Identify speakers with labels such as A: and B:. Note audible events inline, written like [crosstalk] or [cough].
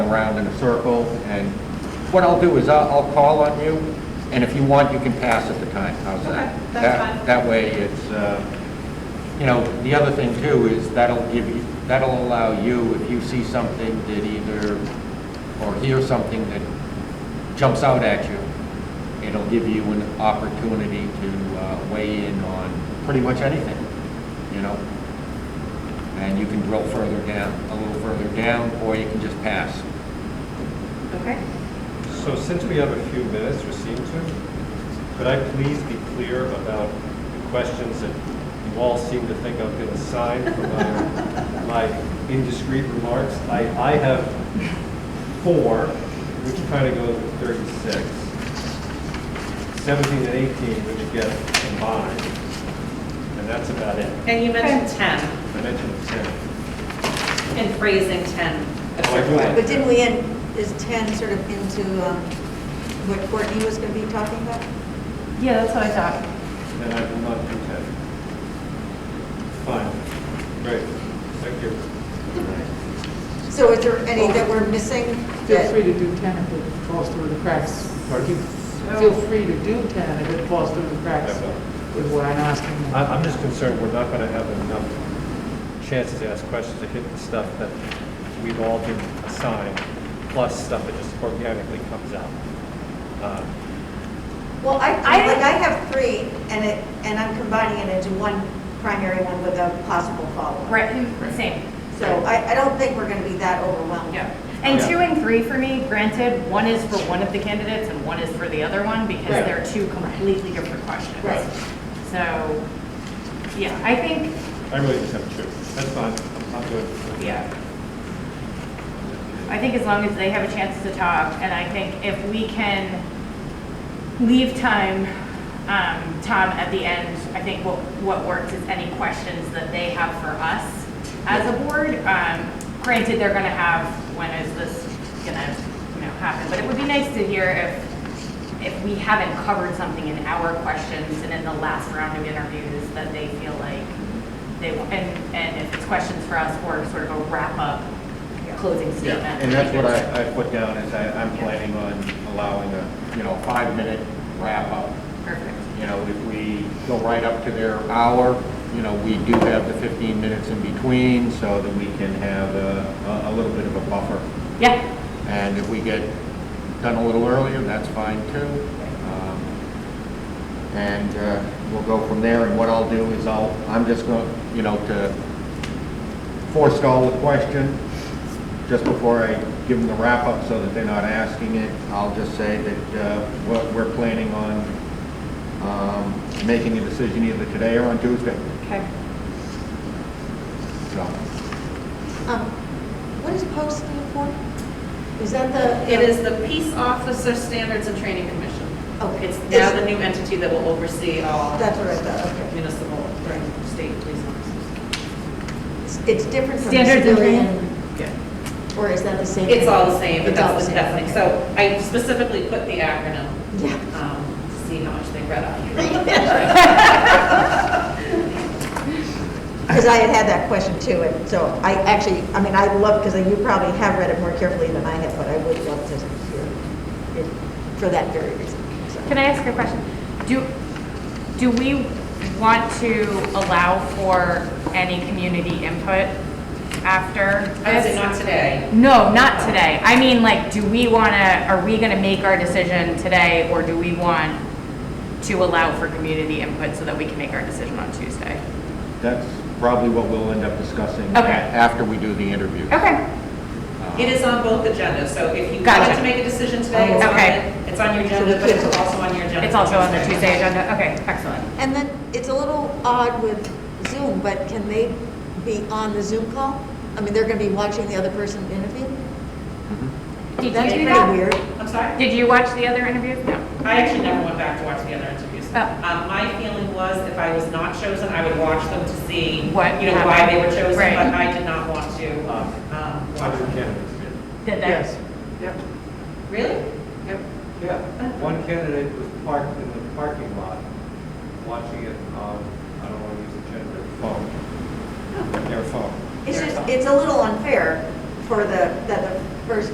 A: around in a circle, and what I'll do is I'll, I'll call on you, and if you want, you can pass at the time, how's that?
B: Okay, that's
A: That-
B: fine.
A: That way, it's, uh, you know, the other thing too is that'll give you, that'll allow you, if you see something that either, or hear something that jumps out at you, it'll give you an opportunity to uh, weigh in on pretty much anything, you know? And you can drill further down, a little further down, or you can just pass.
B: Okay.
C: So since we have a few minutes, or seem to, could I please be clear about the questions that you all seem to think I'm going to sign for my,
D: [laughs]
C: my indiscreet remarks? I, I have four, which kind of goes with 36, 17 and 18, which get combined, and that's about it.
B: And you mentioned 10,
C: I mentioned 10.
B: and phrasing 10 a
C: Oh, I do
B: certain way.
C: like
D: But didn't we end, is 10 sort of into um, what Courtney was going to be talking about?
E: Yeah, that's what I thought.
C: And I will not contest. Fine, great, thank you.
D: So is there any that we're missing?
F: Feel
D: that-
F: free to do 10 if it falls through the cracks.
C: Pardon?
F: Feel free to do 10 if it falls through the cracks with what I'm asking. you.
C: I- I'm just concerned we're not going to have enough chances to ask questions to hit the stuff that we've all been assigned, plus stuff that just organically comes out. Um,
D: Well,
E: I
D: I, I think
E: would-
D: I have three, and it, and I'm combining it into one primary one with a possible follow-up.
E: Right, hmm, same.
D: So I, I don't think we're going to be that overwhelmed.
E: Yeah. And
C: Yeah.
E: two and three for me, granted, one is for one of the candidates and one is for the other one because
C: Right.
E: they're two completely different questions.
D: Right.
E: So, yeah, I think,
C: I really just have two, that's fine, I'm good.
E: yeah. I think as long as they have a chance to talk, and I think if we can leave time, um, Tom, at the end, I think what, what works is any questions that they have for us as a board. Um, granted, they're gonna have, when is this gonna, you know, happen? But it would be nice to hear if, if we haven't covered something in our questions and in the last round of interviews that they feel like they, want- and, and if it's questions for us or sort of a wrap-up closing
A: Yeah,
E: statement.
A: and that's what I, I put down, is I, I'm planning on allowing a, you know, five-minute wrap-up.
E: Perfect.
A: You know, if we go right up to their hour, you know, we do have the 15 minutes in between, so that we can have a, a- a little bit of a buffer.
E: Yeah,
A: And if we get done a little earlier, that's fine too. Um, And uh, we'll go from there, and what I'll do is I'll, I'm just going, to you know, to forestall the question, just before I give them the wrap-up so that they're not asking it, I'll just say that uh, what we're planning on um, making a decision either today or on Tuesday,
E: okay.
A: so.
D: Um, What does POST stand for? Is that the?
B: It is the Peace Officer Standards and Training Commission.
D: oh, Okay.
B: It's now the new entity that will oversee all
D: That's what I thought, okay.
B: municipal, or state police officers.
D: It's- It's different from
E: Standards and training.
D: civilian,
B: Yeah.
D: or is that the same?
B: It's all the same, but
D: It's all
B: that's the
D: the same,
B: definition.
D: okay.
B: So I specifically put the acronym,
D: Yeah.
B: um, to see how much they read on you.
D: Because I had had that question too, and so I actually, I mean, I love, because you probably have read it more carefully than I have, but I would love to hear it for that very reason. so.
E: Can I ask a question? Do, do we want to allow for any community input after
B: I would say
E: this?
B: not today.
E: No, not today. I mean, like, do we want to, are we going to make our decision today, or do we want to allow for community input so that we can make our decision on Tuesday?
A: That's probably what we'll end up discussing a-
E: Okay.
A: after we do the interview.
E: Okay,
B: It is on both agendas, so if you
E: Gotcha.
B: wanted to make a decision today, it's on,
E: Okay.
B: it. it's on your agenda, but it's also on your agenda.
E: it's also on the
B: Tuesday.
E: Tuesday agenda, okay, excellent.
D: And then, it's a little odd with Zoom, but can they be on the Zoom call? I mean, they're going to be watching the other person interview?
E: Did you
D: That's
E: do
D: pretty
E: that?
D: weird.
B: I'm sorry?
E: Did you watch the other interview? No.
B: I actually never went back to watch the other interviews.
E: Oh.
B: Um, My feeling was if I was not chosen, I would watch them to see,
E: What
B: you know, why they were
E: happened.
B: chosen,
E: Right.
B: but I did not want to um, watch
C: One
B: them.
C: candidate did.
E: Did that?
F: Yes.
C: Yep.
B: Really?
C: Yeah, one candidate was parked in the parking lot, watching it on, I don't want to use the gender, phone, their phone.
D: It's just, it's a little unfair for the, that the first